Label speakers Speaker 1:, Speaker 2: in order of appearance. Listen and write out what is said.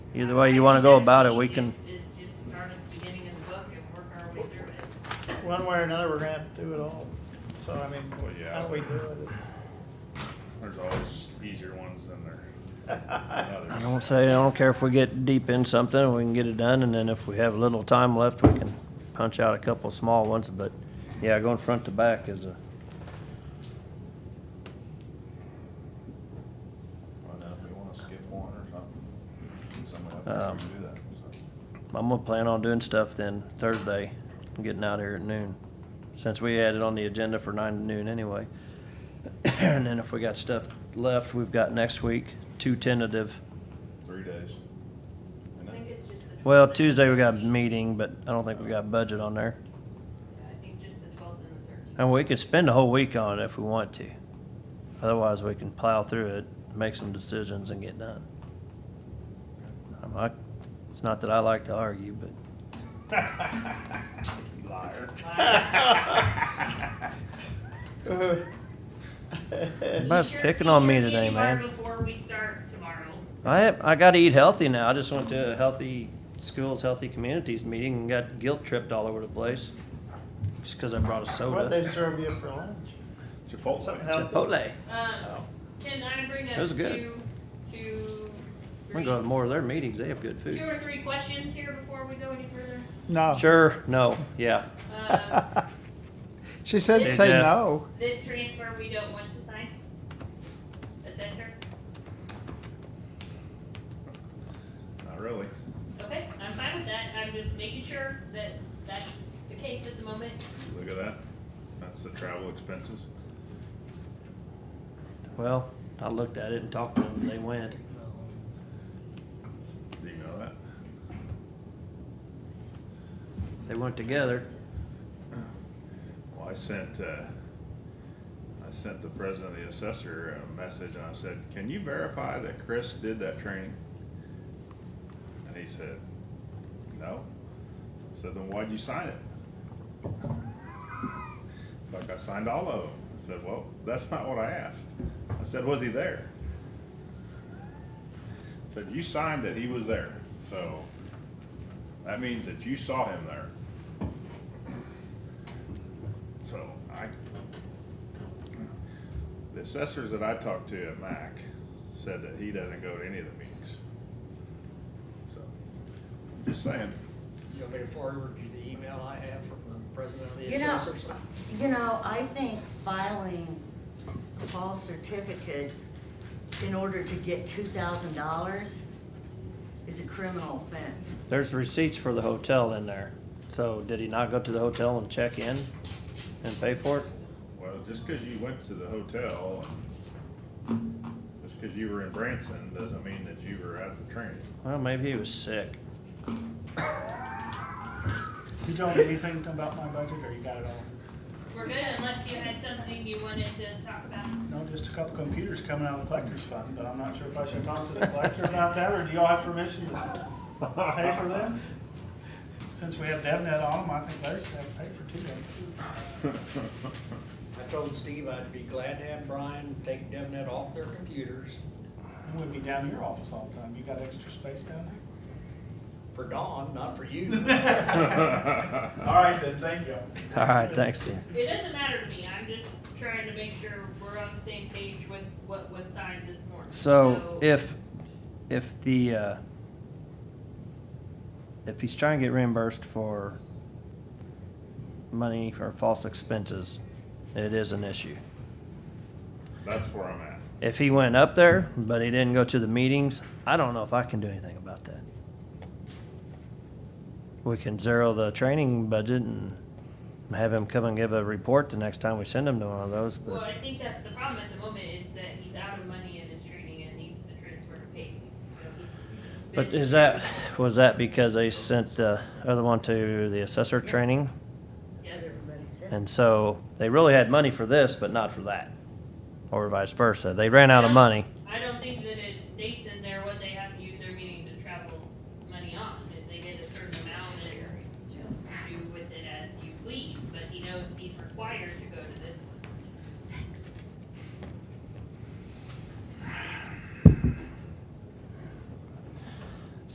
Speaker 1: Either way you wanna go about it, we can,
Speaker 2: Is just start at the beginning of the book and work our way through it.
Speaker 3: One way or another, we're gonna have to do it all. So, I mean,
Speaker 4: Well, yeah.
Speaker 3: how do we do it?
Speaker 4: There's always easier ones than there than
Speaker 1: I
Speaker 4: others.
Speaker 1: don't say, I don't care if we get deep in something, we can get it done, and then if we have little time left, we can punch out a couple small ones, but yeah, going front to back is a.
Speaker 4: Find out uh, if we wanna skip one or something. Somebody up there
Speaker 1: Um,
Speaker 4: can do that, so.
Speaker 1: I'm gonna plan on doing stuff then Thursday, getting out here at noon, since we had it on the agenda for nine to noon anyway. And then if we got stuff left, we've got next week, two tentative.
Speaker 4: Three days. And
Speaker 2: I think
Speaker 4: then-
Speaker 2: it's just the.
Speaker 1: Well,
Speaker 2: 12th.
Speaker 1: Tuesday we got a meeting, but I don't think we got budget on there.
Speaker 2: I think just the twelfth and the thirteenth.
Speaker 1: And we could spend a whole week on it if we want to. Otherwise, we can plow through it, make some decisions and get done. I'm like, it's not that I like to argue, but
Speaker 4: Liar.
Speaker 1: Everybody's Oh. picking on me today, man.
Speaker 2: Before we start tomorrow.
Speaker 1: I, I gotta eat healthy now. I just went to a healthy schools, healthy communities meeting and got guilt tripped all over the place. Just cause I brought a
Speaker 3: What they
Speaker 1: soda.
Speaker 3: serve you for lunch? Something
Speaker 4: Chipotle.
Speaker 3: else?
Speaker 1: Chipotle.
Speaker 2: Um, can I bring up
Speaker 1: Oh. That was
Speaker 2: two,
Speaker 1: good. I'm
Speaker 2: two, three,
Speaker 1: gonna go to more of their meetings. They have good
Speaker 2: two
Speaker 1: food.
Speaker 2: or three questions here before we go any further?
Speaker 3: Oh.
Speaker 5: No.
Speaker 1: Sure, no, yeah.
Speaker 2: Um,
Speaker 5: She said,
Speaker 1: Hey,
Speaker 5: say
Speaker 1: Jeff.
Speaker 5: no.
Speaker 2: This transfer we don't want to sign? Assessor?
Speaker 4: Not really.
Speaker 2: Okay, I'm fine with that, I'm just making sure that that's the case at the moment.
Speaker 4: Look at that. That's the travel expenses.
Speaker 1: Well, I looked at it and talked to them. They went.
Speaker 4: Do you know that?
Speaker 1: They went together.
Speaker 4: Well, I sent, uh, I sent the president of the assessor a message and I said, can you verify that Chris did that training? And he said, no. I said, then why'd you sign it? It's like, I signed all of them. I said, well, that's not what I asked. I said, was he there? I Said, you signed that he was there, so that means that you saw him there. So I, the assessors that I talked to at MAC said that he doesn't go to any of the meetings. So, just saying,
Speaker 6: You want me to forward you the email I have from the president of the
Speaker 7: You know-
Speaker 6: assessors?
Speaker 7: You know, I think filing a false certificate in order to get two thousand dollars is a criminal offense.
Speaker 1: There's receipts for the hotel in there. So did he not go to the hotel and check in and pay for it?
Speaker 4: well, just cause you went to the hotel, just cause you were in Branson, doesn't mean that you were at the training.
Speaker 1: Well, maybe he was sick.
Speaker 3: You don't know anything about my budget, or you got it all?
Speaker 2: We're good unless you had something you wanted to talk about.
Speaker 3: No, just a couple computers coming out of the collector's fund, but I'm not sure if I should talk to the collector about that, or do y'all have permission to s- pay for them? Since we have DevNet on them, I think they should have to pay for two days.
Speaker 6: I told Steve I'd be glad to have Brian take DevNet off their computers
Speaker 3: And we'd be down in your office all the time. You got extra space down there?
Speaker 6: for Dawn, not for you.
Speaker 3: All right, then, thank you.
Speaker 1: All right, thanks, Steve.
Speaker 2: It doesn't matter to me, I'm just trying to make sure we're on the same page with what was signed this morning.
Speaker 1: So if, if the, uh, if he's trying to get reimbursed for money for false expenses, it is an issue.
Speaker 4: That's where I'm at.
Speaker 1: If he went up there, but he didn't go to the meetings, I don't know if I can do anything about that. We can zero the training budget and have him come and give a report the next time we send him to one of those,
Speaker 2: Well,
Speaker 1: but
Speaker 2: I think that's the problem at the moment is that he's out of money in his training and needs the transfer to pay. So he's
Speaker 1: but
Speaker 2: been-
Speaker 1: is that, was that because they sent the other one to the assessor training?
Speaker 2: Yes.
Speaker 7: Everybody said.
Speaker 1: And so they really had money for this, but not for that, or vice versa. They ran out of money.
Speaker 2: I don't think that it states in there what they have to use their meetings and travel money on, if they get a certain amount and do with it as you please, but he knows he's required to go to this